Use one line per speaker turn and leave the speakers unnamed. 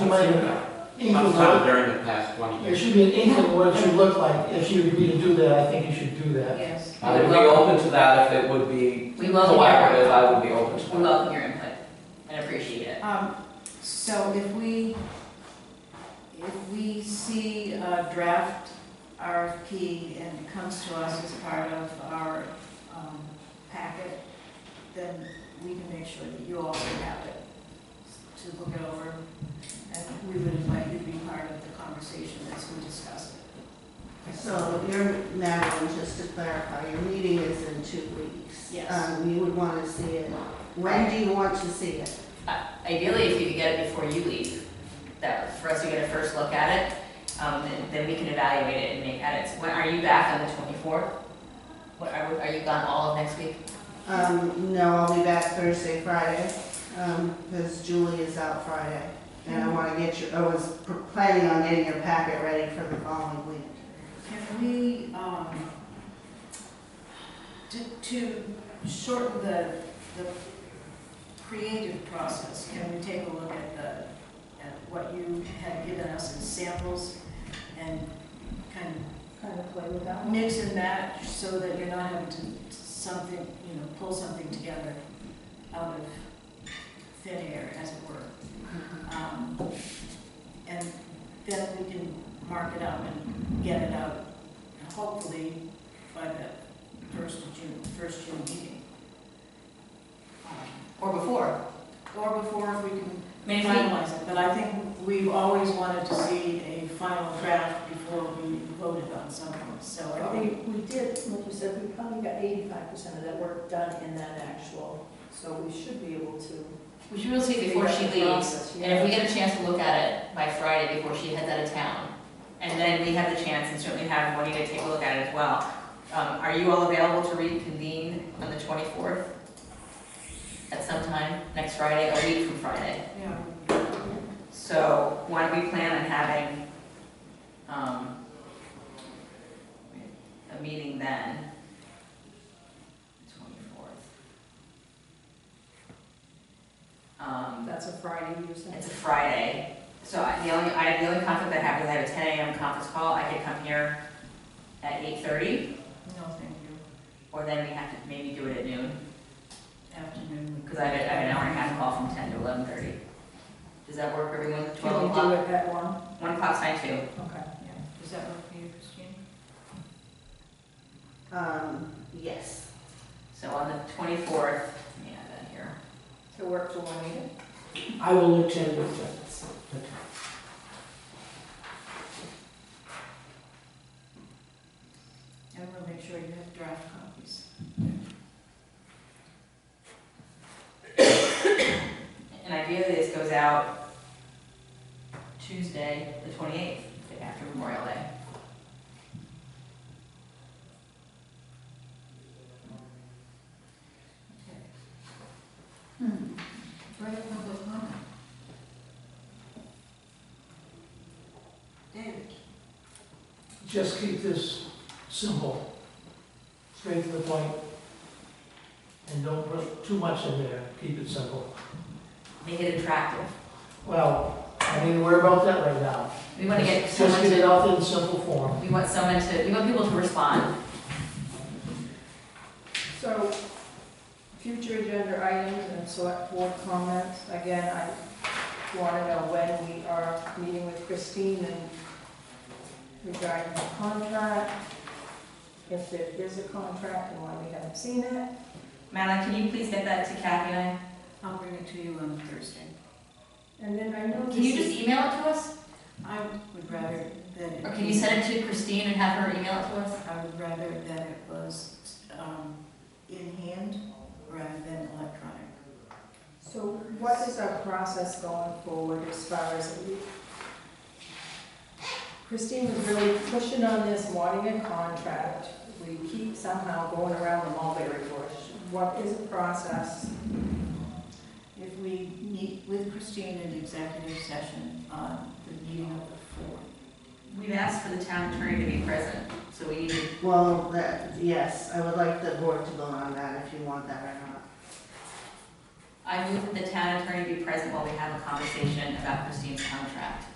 might have inkling
sometime
what,
during the past 20
there
years.
should be an inkling what it should look like. If you agree to do that, I think you should do that.
Yes,
I would be open to that if it would be
we welcome your,
collaborative, I would be open to that.
we welcome your input and appreciate it.
Um, so if we, if we see a draft RFP and it comes to us as part of our, um, packet, then we can make sure that you also have it to look it over. And we would invite you to be part of the conversation as we discuss it.
So your, Madeline, just to clarify, your meeting is in two weeks.
Yes.
Um, you would want to see it. When do you want to see it?
Ideally, if you could get it before you leave, that, for us to get a first look at it, um, then, then we can evaluate it and make edits. When, are you back on the twenty-fourth? What, are, are you gone all of next week?
Um, no, I'll be back Thursday, Friday, um, because Julie is out Friday. And I want to get your, I was pr- planning on getting your packet ready for the following week.
Can we, um, to, to shorten the, the creative process, can we take a look at the, at what you had given us as samples and kind
kind of play with that
of
one.
mix and match so that you're not having to something, you know, pull something together out of thin air, as it were. Um, And then we can mark it up and get it out, hopefully by the first of June, first June meeting. Um,
Or before?
Or before if we can
I mean, if we-
finalize it, but I think we've always wanted to see a final draft before we voted on something, so I think
We, we did, like you said, we probably got eighty-five percent of that work done in that actual, so we should be able to.
we should really see it before
speed
she
up the
leaves.
process,
And if we
yeah.
get a chance to look at it by Friday before she heads out of town, and then we have the chance and certainly have Juanita take a look at it as well. Um, are you all available to reconvene on the twenty-fourth? At some time, next Friday, a week from Friday.
Yeah.
So why don't we plan on having, um, a meeting then? Twenty-fourth. Um.
That's a Friday, you said.
It's a Friday, so I- the only, I, the only conflict I have is I have a ten AM conference call, I could come here at eight thirty,
No, thank you.
or then we have to maybe do it at noon,
Afternoon.
because I have, a- I have an hour and a half call from ten to eleven thirty. Does that work, everyone,
Can
twelve
we do
o'clock?
it at one?
One o'clock's fine too.
Okay.
Does that work for you, Christine?
Um, yes.
So on the twenty-fourth, yeah, then here,
To work for one meeting?
I will attend with that.
And we'll make sure you have draft copies.
and ideally this goes out Tuesday, the twenty-eighth, after Memorial Day.
Further public comment? David?
Just keep this simple, straight to the point, and don't put too much in there. Keep it simple.
Make it attractive,
Well, I mean, worry about that right now.
we wanna get
Just-
someone
Just get it
to,
out there in simple form.
we want someone to, we want people to respond.
So, future agenda items and select board comments, again, I want to know when we are meeting with Christine and regarding the contract, if there is a contract and why we haven't seen it.
Madeline, can you please get that to Kathy and
I'll bring it to you on Thursday.
And then I know
I?
this
Can you just
is-
email it to us?
I would rather that it.
Or can you send it to Christine and have her email it to us?
I would rather that it was, um, in hand rather than electronic.
So what is our process going forward as far as, Christine was really pushing on this, wanting a contract. We keep somehow going around the mulberry bush. What is the process?
If we meet with Christine in executive session on the meeting of the fourth.
We've asked for the town attorney to be present, so we need,
Well, that, yes, I would like the board to vote on that if you want that or not.
I move that the town attorney be present while we have a conversation about Christine's contract.